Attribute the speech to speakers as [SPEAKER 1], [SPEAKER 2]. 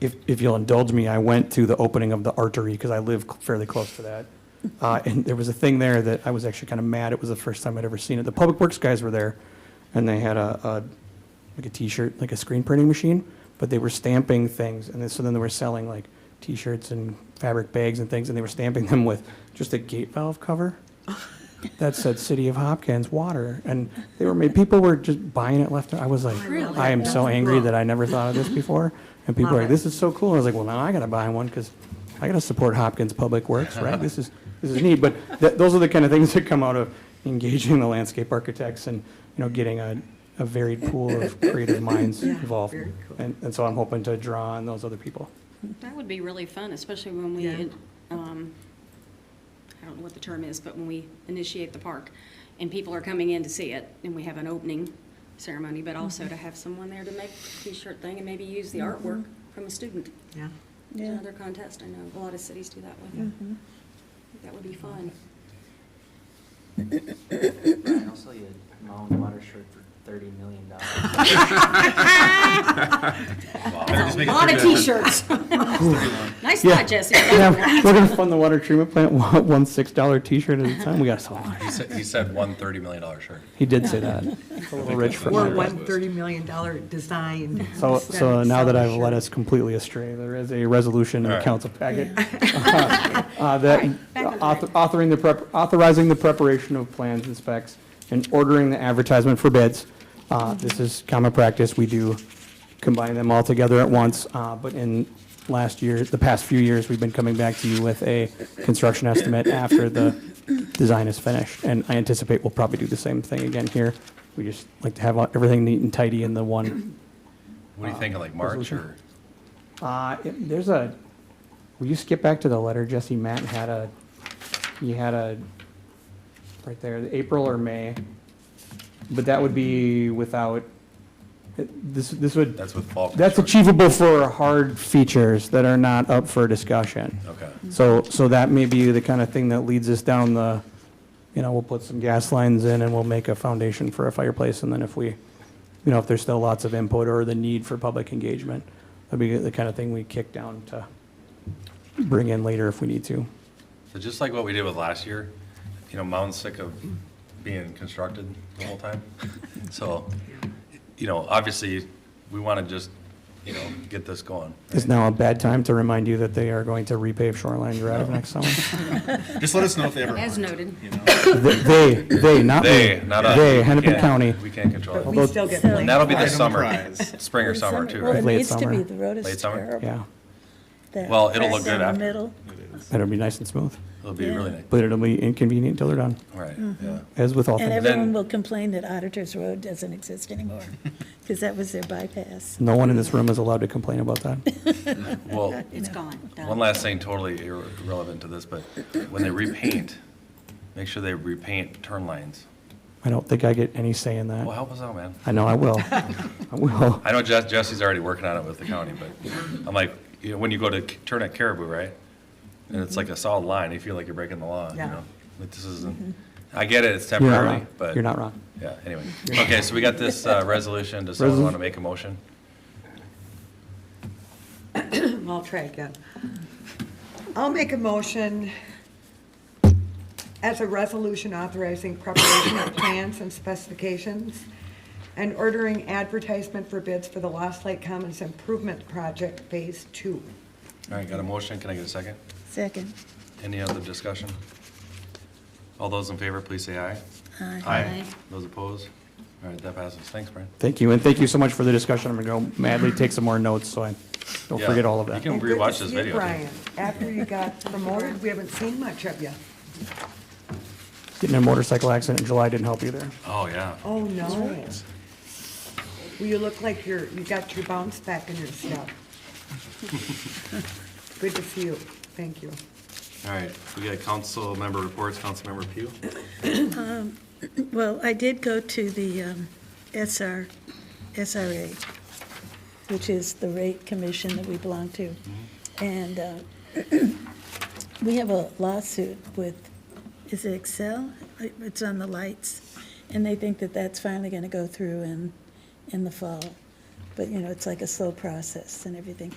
[SPEAKER 1] if, if you'll indulge me, I went to the opening of the artery because I live fairly close to that. Uh, and there was a thing there that I was actually kind of mad. It was the first time I'd ever seen it. The public works guys were there and they had a, a like a t-shirt, like a screen printing machine, but they were stamping things. And then, so then they were selling like t-shirts and fabric bags and things. And they were stamping them with just a gate valve cover that said City of Hopkins water. And they were made, people were just buying it left. and- I was like,
[SPEAKER 2] Really?
[SPEAKER 1] I am so angry that I never thought of this before. And people
[SPEAKER 2] Love
[SPEAKER 1] are
[SPEAKER 2] it.
[SPEAKER 1] like, this is so cool. I was like, well, now I gotta buy one because I gotta support Hopkins Public Works, right? This is, this is neat. But th- those are the kind of things that come out of engaging the landscape architects and, you know, getting a, a varied pool of creative minds
[SPEAKER 2] Yeah,
[SPEAKER 1] involved.
[SPEAKER 2] very cool.
[SPEAKER 1] And, and so I'm hoping to draw on those other people.
[SPEAKER 3] That would be really fun, especially when we,
[SPEAKER 2] Yeah.
[SPEAKER 3] um, I don't know what the term is, but when we initiate the park and people are coming in to see it and we have an opening ceremony, but
[SPEAKER 2] Mm-hmm.
[SPEAKER 3] also to have someone there to make a t-shirt thing and maybe use the artwork from a student.
[SPEAKER 2] Yeah. Mm-hmm.
[SPEAKER 3] It's Another contest, I know, a lot of cities do that one. That would be fun.
[SPEAKER 4] Brian, I'll sell you a Mountain Water shirt for thirty million dollars.
[SPEAKER 3] A lot of t-shirts. Nice
[SPEAKER 1] Yeah.
[SPEAKER 3] thought, Jesse.
[SPEAKER 1] Yeah, We're gonna fund the water treatment plant, one one $6 t-shirt at a time. We gotta sell them.
[SPEAKER 5] He said, he said one $30 million shirt.
[SPEAKER 1] He did say that. A little rich for
[SPEAKER 2] Or
[SPEAKER 1] my-
[SPEAKER 2] one thirty million dollar design.
[SPEAKER 1] So,
[SPEAKER 2] instead
[SPEAKER 1] so
[SPEAKER 2] of
[SPEAKER 1] now that I've
[SPEAKER 2] selling
[SPEAKER 1] led
[SPEAKER 2] shirts.
[SPEAKER 1] us completely astray, there is a resolution in the
[SPEAKER 5] All right.
[SPEAKER 1] council packet. uh, That
[SPEAKER 3] back on
[SPEAKER 1] author- authoring the prep, authorizing the preparation of plans and specs and ordering the advertisement for bids. Uh, This is common practice. We do combine them all together at once. uh, But in last year, the past few years, we've been coming back to you with a construction estimate after the design is finished. And I anticipate we'll probably do the same thing again here. We just like to have everything neat and tidy in the one
[SPEAKER 5] What are you thinking, like March or?
[SPEAKER 1] uh, it- there's a, will you skip back to the letter, Jesse? Matt had a, he had a, right there, April or May. But that would be without, it- this, this would,
[SPEAKER 5] That's with fall.
[SPEAKER 1] that's
[SPEAKER 5] construction.
[SPEAKER 1] achievable for hard features that are not up for discussion.
[SPEAKER 5] Okay.
[SPEAKER 1] So, so that may be the kind of thing that leads us down the, you know, we'll put some gas lines in and we'll make a foundation for a fireplace. And then if we, you know, if there's still lots of input or the need for public engagement, that'd be the kind of thing we kick down to bring in later if we need to.
[SPEAKER 5] So just like what we did with last year, you know, Mountain's sick of being constructed the whole time. So, you know, obviously, we want to just, you know, get this going.
[SPEAKER 1] Is now a bad time to remind you that they are going to repave Shoreline Drive next summer?
[SPEAKER 6] Just let us know if they ever.
[SPEAKER 3] As
[SPEAKER 6] aren't,
[SPEAKER 3] noted.
[SPEAKER 6] you know?
[SPEAKER 1] They, they, not me.
[SPEAKER 5] They, not us.
[SPEAKER 1] They,
[SPEAKER 5] We
[SPEAKER 1] Hennepin
[SPEAKER 5] can't-
[SPEAKER 1] County.
[SPEAKER 5] We can't control
[SPEAKER 2] We
[SPEAKER 5] it.
[SPEAKER 2] still get
[SPEAKER 7] So-
[SPEAKER 2] blamed.
[SPEAKER 5] And that'll be
[SPEAKER 6] Item
[SPEAKER 5] this summer,
[SPEAKER 6] prize.
[SPEAKER 5] spring or summer too,
[SPEAKER 7] Well,
[SPEAKER 5] right?
[SPEAKER 7] it
[SPEAKER 1] Late
[SPEAKER 7] needs to
[SPEAKER 1] summer.
[SPEAKER 7] be, the road
[SPEAKER 5] Late
[SPEAKER 7] is
[SPEAKER 5] summer?
[SPEAKER 7] terrible.
[SPEAKER 1] Yeah,
[SPEAKER 7] That
[SPEAKER 5] Well, it'll look
[SPEAKER 7] crack
[SPEAKER 5] good
[SPEAKER 7] in the
[SPEAKER 5] after.
[SPEAKER 7] middle.
[SPEAKER 1] that'll be nice and smooth,
[SPEAKER 5] It'll be really nice.
[SPEAKER 1] but it'll be inconvenient until they're done,
[SPEAKER 5] Right, yeah.
[SPEAKER 1] as with all
[SPEAKER 7] And
[SPEAKER 1] things.
[SPEAKER 7] everyone will complain that Auditor's Road doesn't exist anymore, because that was their bypass.
[SPEAKER 1] No one in this room is allowed to complain about that.
[SPEAKER 5] Well,
[SPEAKER 3] It's gone. Done.
[SPEAKER 5] One last thing, totally irre- irrelevant to this, but when they repaint, make sure they repaint turn lines.
[SPEAKER 1] I don't think I get any say in
[SPEAKER 5] Well,
[SPEAKER 1] that.
[SPEAKER 5] help us out, man.
[SPEAKER 1] I know I will. I will.
[SPEAKER 5] I know Jess, Jesse's already working on it with the county, but I'm like, you know, when you go to c- turn at Caribou, right? And it's like a solid line, you feel like you're breaking the law, you
[SPEAKER 2] Yeah.
[SPEAKER 5] know? But this isn't, I get it, it's
[SPEAKER 1] You're not
[SPEAKER 5] temporary,
[SPEAKER 1] wrong.
[SPEAKER 5] but.
[SPEAKER 1] You're not wrong.
[SPEAKER 5] Yeah, anyway. Okay, so we got this, uh, resolution. Does someone
[SPEAKER 1] Resol-
[SPEAKER 5] want to make a motion?
[SPEAKER 2] I'll try again. I'll make a motion as a resolution authorizing preparation of plans and specifications and ordering advertisement for bids for the Lost Lake Commons Improvement Project Phase Two.
[SPEAKER 5] All right, got a motion, can I get a second?
[SPEAKER 7] Second.
[SPEAKER 5] Any other discussion? All those in favor, please say aye.
[SPEAKER 7] Aye.
[SPEAKER 5] Those opposed? All right, that passes. Thanks, Brian.
[SPEAKER 1] Thank you, and thank you so much for the discussion. I'm going to go madly take some more notes, so I don't
[SPEAKER 5] Yeah.
[SPEAKER 1] forget all of
[SPEAKER 5] You
[SPEAKER 1] that.
[SPEAKER 5] can
[SPEAKER 2] And good to
[SPEAKER 5] rewatch this
[SPEAKER 2] see you,
[SPEAKER 5] video.
[SPEAKER 2] Brian, after you got promoted, we haven't seen much of you.
[SPEAKER 1] Getting in a motorcycle accident in July didn't help either.
[SPEAKER 5] Oh, yeah.
[SPEAKER 2] Oh, no. Well, you look like you're, you got your bounce back in your step. Good to see you. Thank you.
[SPEAKER 5] All right, we got council member reports, council member Pugh.
[SPEAKER 7] Well, I did go to the um, SR, SRA, which is the rate commission that we belong to. And uh, we have a lawsuit with, is it Excel? It's on the lights. And they think that that's finally going to go through in, in the fall. But, you know, it's like a slow process and everything.